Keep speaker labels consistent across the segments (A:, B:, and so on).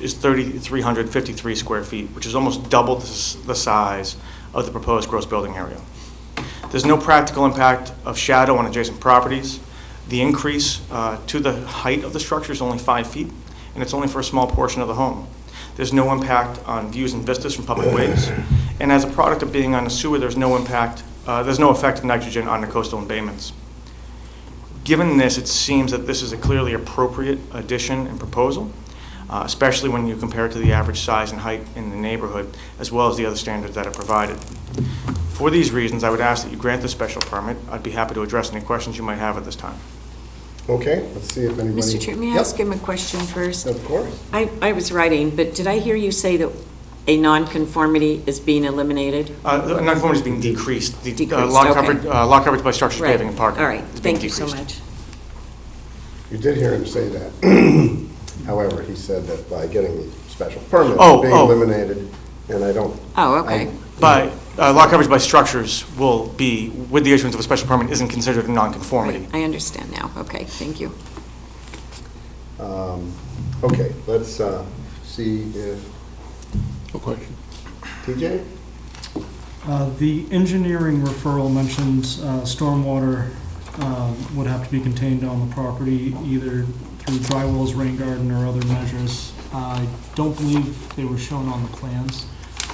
A: is 3,353 square feet, which is almost double the s- the size of the proposed gross building area. There's no practical impact of shadow on adjacent properties. The increase uh, to the height of the structure is only five feet, and it's only for a small portion of the home. There's no impact on views and vistas from public ways. And as a product of being on a sewer, there's no impact, uh, there's no effect of nitrogen on the coastal embayments. Given this, it seems that this is a clearly appropriate addition and proposal, uh, especially when you compare it to the average size and height in the neighborhood, as well as the other standards that are provided. For these reasons, I would ask that you grant the special permit. I'd be happy to address any questions you might have at this time.
B: Okay, let's see if anybody.
C: Mr. Chair, may I
B: Yep,
C: ask him a question first?
B: Of course.
C: I, I was writing, but did I hear you say that a nonconformity is being eliminated?
A: Uh, the Nonconformity is being decreased. The, uh,
C: Decreased,
A: lot
C: okay.
A: coverage- uh, Lot coverage by structures,
C: Right.
A: paving, and parking.
C: All right,
A: is being
C: thank you so
A: decreased.
C: much.
B: You did hear him say that. However, he said that by getting the special permit,
A: Oh,
B: it's being
A: oh.
B: eliminated, and I don't.
C: Oh, okay.
A: But uh, lot coverage by structures will be, with the issuance of a special permit, isn't considered a nonconformity.
C: Right, I understand now, okay, thank you.
B: um, Okay, let's uh, see if,
D: No question.
B: TJ?
E: Uh, The engineering referral mentions uh, stormwater um, would have to be contained on the property either through dry wells, rain garden, or other measures. I don't believe they were shown on the plans.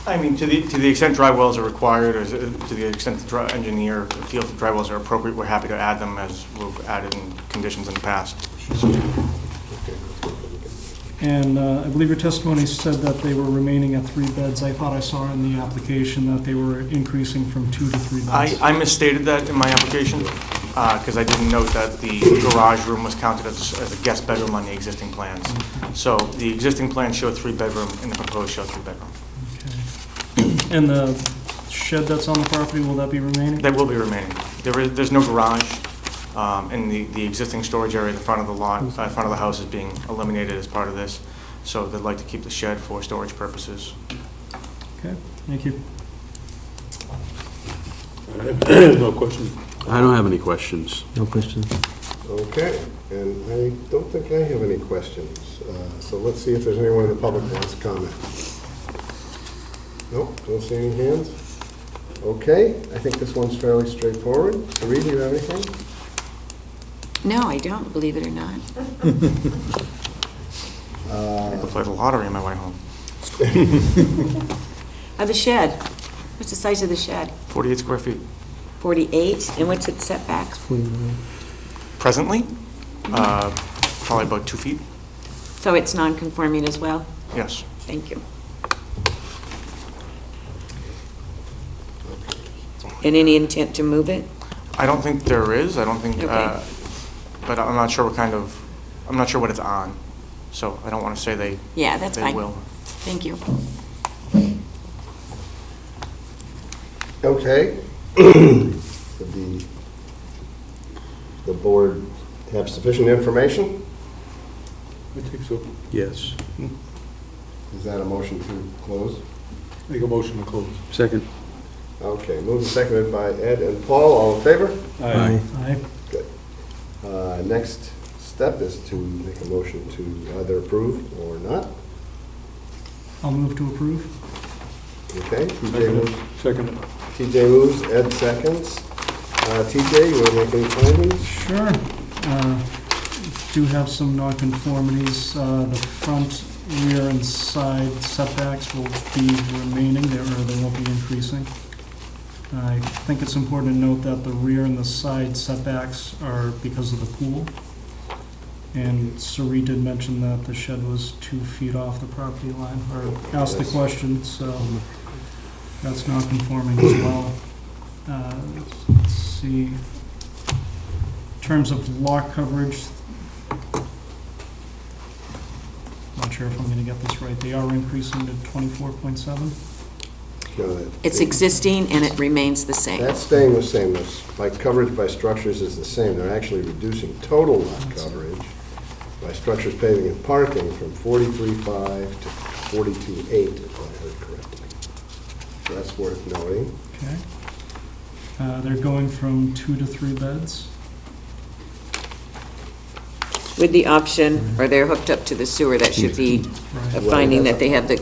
A: I mean, to the, to the extent dry wells are required, or is it- to the extent the dry- engineer feels that dry wells are appropriate, we're happy to add them as we've added in conditions in the past.
E: And uh, I believe your testimony said that they were remaining at three beds. I thought I saw in the application that they were increasing from two to three
A: I,
E: beds.
A: I misstated that in my application, because I didn't note that the garage room was counted as, as a guest bedroom on the existing plans. So the existing plans show three bedroom, and the proposed show three bedroom.
E: Okay. And the shed that's on the property, will that be remaining?
A: That will be remaining. There is, there's no garage, um, and the, the existing storage area in front of the lot, uh, in front of the house is being eliminated as part of this, so they'd like to keep the shed for storage purposes.
E: Okay, thank you.
D: No question.
F: I don't have any questions.
G: No question.
B: Okay, and I don't think I have any questions. Uh, So let's see if there's anyone in the public who wants to comment. Nope, don't see any hands. Okay, I think this one's fairly straightforward. Reed, do you have anything?
C: No, I don't, believe it or not.
A: I could play the lottery on my way home.
C: Uh, the shed, what's the size of the shed?
A: 48 square feet.
C: 48, and what's its setback?
A: Presently, uh, probably about two feet,
C: So it's nonconforming as well?
A: yes.
C: Thank you. And any intent to move it?
A: I don't think there is, I don't think,
C: Okay.
A: uh, but I'm not sure what kind of, I'm not sure what it's on, so I don't want to say they,
C: Yeah, that's
A: they
C: fine.
A: will.
C: Thank you.
B: Okay. The, the board have sufficient information?
D: I think so.
F: Yes.
B: Is that a motion to close?
D: Make a motion to close.
F: Second.
B: Okay, moved and seconded by Ed and Paul, all in favor?
F: Aye.
E: Aye.
B: Uh, Next step is to make a motion to either approve or not.
E: I'll move to approve.
B: Okay, TJ
D: Second.
B: moves,
D: Second.
B: TJ moves, Ed seconds. Uh, TJ, you want to make any findings?
E: Sure. Uh, Do have some nonconformities. Uh, The front, rear, and side setbacks will be remaining, there, or they won't be increasing. I think it's important to note that the rear and the side setbacks are because of the pool. And Sari did mention that the shed was two feet off the property line, or asked the question, so that's nonconforming as well. Uh, Let's see. In terms of lot coverage, not sure if I'm going to get this right, they are increasing to 24.7?
B: No, that-
C: It's existing and it remains the same.
B: That's staying the same, that's, like, coverage by structures is the same, they're actually reducing total lot coverage by structures, paving, and parking from 43.5 to 42.8, if I heard correctly. So that's worth noting.
E: Okay. Uh, They're going from two to three beds.
C: with the option, or they're hooked up to the sewer, that should be a
E: Right.
C: finding that they have the